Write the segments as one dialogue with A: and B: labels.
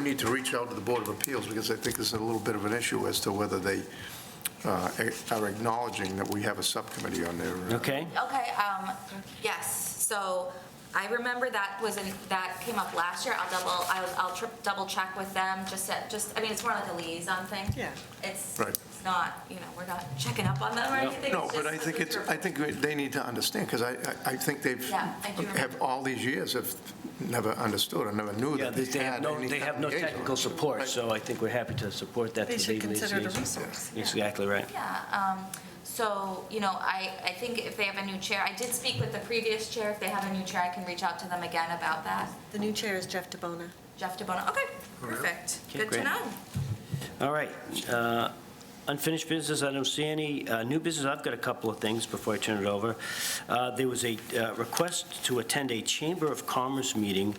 A: need to reach out to the Board of Appeals, because I think there's a little bit of an issue as to whether they uh, are acknowledging that we have a subcommittee on their... uh,
B: Okay,
C: Okay, um, yes, so I remember that was in, that came up last year. I'll double, I'll, I'll trip, double check with them, just, at- just, I mean, it's more like a liaison thing.
D: Yeah.
C: It's,
A: Right.
C: it's not, you know, we're not checking up on them or
B: No.
C: anything.
A: No,
C: it's
A: but
C: just
A: I
C: the
A: think it's,
C: group.
A: I think they need to understand, because I, I- I think they've,
C: Yeah, I do remember.
A: have all these years have never understood, or never knew
B: yeah,
A: that they
B: they have
A: had
B: no,
A: any
B: they have
A: kind
B: no
A: of liaison.
B: technical support, so I think we're happy to support that.
D: They
B: for
D: should
B: the
D: consider it a
B: liaison.
D: resource, yeah.
B: Exactly right.
C: Yeah, um, so, you know, I, I think if they have a new chair, I did speak with the previous chair. If they have a new chair, I can reach out to them again about that.
D: The new chair is Jeff DeBona.
C: Jeff DeBona, okay, perfect.
B: Okay,
C: Good
B: great.
C: to know.
B: All right. uh, Unfinished business, I don't see any. Uh, New business, I've got a couple of things before I turn it over. Uh, There was a uh, request to attend a Chamber of Commerce meeting.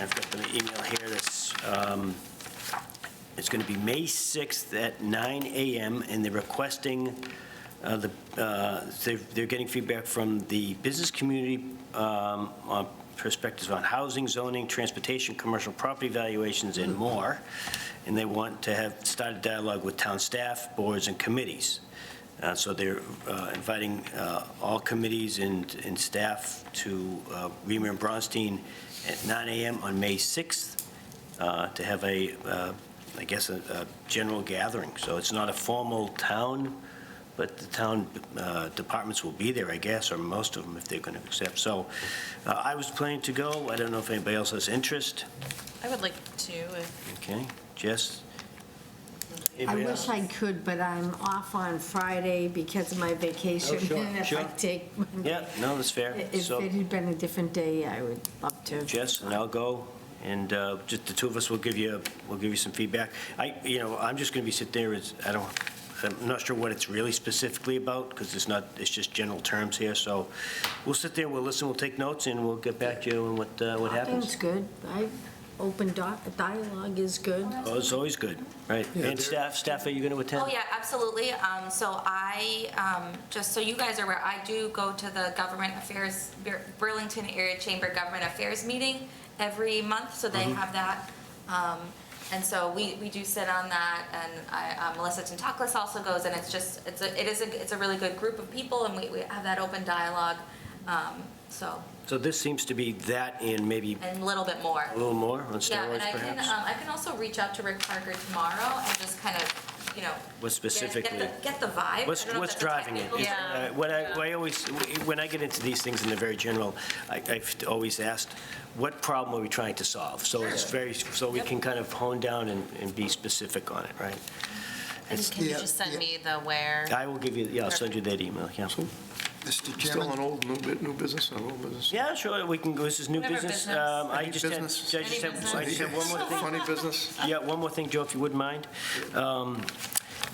B: I've got the email here that's, um, it's going to be May 6th at 9 AM, and they're requesting, uh, the uh, they're they're getting feedback from the business community um, on perspectives on housing, zoning, transportation, commercial property valuations, and more and they want to have, started dialogue with town staff, boards, and committees. Uh, So they're uh, inviting uh, all committees and, and staff to uh, Reamer and Bronstein at 9 AM on May 6th uh, to have a, uh, I guess, a, a general gathering. So it's not a formal town, but the town uh, departments will be there, I guess, or most of them if they're going to accept. So uh, I was planning to go. I don't know if anybody else has interest.
E: I would like to, if
B: Okay, Jess?
F: I
B: Anybody else?
F: wish I could, but I'm off on Friday because of my vacation.
B: Oh, sure,
F: And if I
B: sure.
F: take,
B: Yeah, no, that's fair.
F: if
B: So
F: it had been a different day, I would love to.
B: Jess and I'll go, and uh, just the two of us will give you, will give you some feedback. I, you know, I'm just going to be sit there, it's, I don't, I'm not sure what it's really specifically about, because it's not, it's just general terms here, so we'll sit there, we'll listen, we'll take notes, and we'll get back to you on what, uh, what
F: Talking's
B: happens.
F: good. I, open doc- dialogue is good.
B: Oh, it's always good, right? And staff, staff, are you going to attend?
C: Oh, yeah, absolutely. Um, so I, um, just so you guys are aware, I do go to the Government Affairs, Bur- Burlington Area Chamber Government Affairs meeting every month, so they have that. Um, and so we, we do sit on that, and I, um, Melissa Tentaklis also goes, and it's just, it's a, it is a, it's a really good group of people, and we, we have that open dialogue, um, so,
B: So this seems to be that and maybe
C: and a little bit more.
B: a little more on
C: Yeah,
B: steroids,
C: and I can,
B: perhaps?
C: um, I can also reach out to Rick Parker tomorrow and just kind of, you know.
B: What
C: get- get the-
B: specifically?
C: Get the vibe. I
B: What's,
C: don't know if
B: what's
C: that's a
B: driving it?
C: technical
B: Is-
C: term.
E: Yeah.
B: uh, What I, what I always, when I get into these things and they're very general, I, I've always asked, what problem are we trying to solve? So it's very, so we can kind of hone down and, and be specific on it, right?
E: and can you
G: Yeah,
E: just send
G: yeah.
E: me the where?
B: I will give you, yeah, I'll send you that email, yeah.
G: Mr.
A: Still
G: Chairman,
A: an old, new bu- new business, an old business?
B: Yeah, sure, we can go, this is new
E: Whatever
B: business.
E: business.
B: Um, I
A: Any
B: just had, I
A: business?
B: just
E: Any
B: have, I just have
A: Yes.
B: one more thing.
A: Funny business?
B: Yeah, one more thing, Joe, if you wouldn't mind. Um,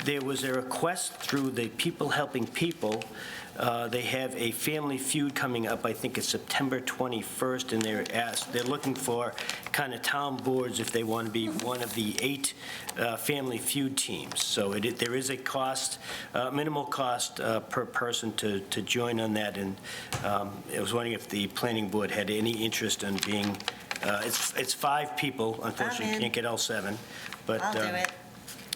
B: There was a request through the People Helping People. Uh, They have a family feud coming up, I think it's September 21st, and they're asked, they're looking for kind of town boards if they want to be one of the eight uh, family feud teams. So it, there is a cost, uh, minimal cost uh, per person to, to join on that, and um, I was wondering if the planning board had any interest in being, uh, it's, it's five people, unfortunately,
D: in.
B: can't get all seven, but.
D: I'll do
B: um,
D: it.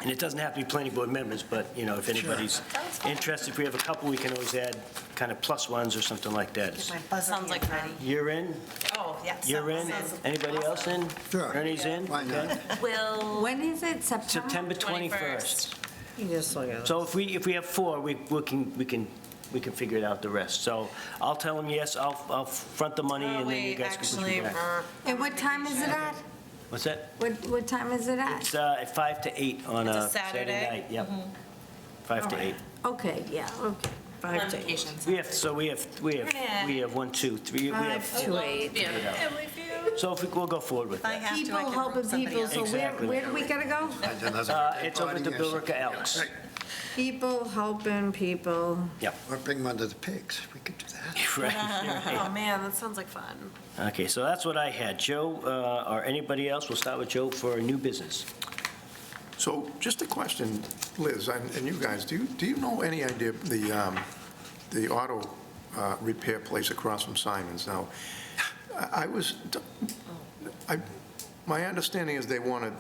B: And it doesn't have to be planning board members, but, you know, if anybody's interested, if we have a couple, we can always add kind of plus ones or something like
D: Get
B: that.
D: my buzzer
E: Sounds like
D: hand
E: fun.
D: ready.
B: You're in,
E: Oh, yes.
B: you're in, anybody else in?
G: Sure.
B: Ernie's in?
G: why not?
E: Will.
F: When is it? September?
B: September
E: 21st.
B: 21st.
F: You just look at it.
B: So if we, if we have four, we, we can, we can, we can figure it out the rest. So I'll tell them yes, I'll, I'll front the money
E: Oh,
B: and then you
E: wait,
B: guys can push
E: actually,
B: me back.
E: we're-
F: And what time is it at?
B: What's that?
F: What, what time is it at?
B: It's uh, at five to eight on
E: It's a
B: a Saturday
E: Saturday?
B: night, yep. Five to eight.
F: Okay, yeah, okay. Five to eight.
E: Notifications.
B: We have, so we have, we have, we have one, two, three, we
F: Five
B: have,
F: to eight.
B: so if we, we'll go forward with
D: If I
B: that.
D: have to, I
F: People
D: can rope
F: helping
D: somebody
F: people,
D: else.
F: so where,
B: Exactly.
F: where do we gotta go?
B: Uh, It's over at the Billerica Elks.
F: People helping people.
G: Or bring them under the pigs, we could do that.
B: Right.
E: Oh, man, that sounds like fun.
B: Okay, so that's what I had. Joe, uh, or anybody else, we'll start with Joe for new business.
A: So just a question, Liz, and and you guys, do you, do you know any idea, the, um, the auto uh, repair place across from Simons now? I I was, I, my understanding is they want to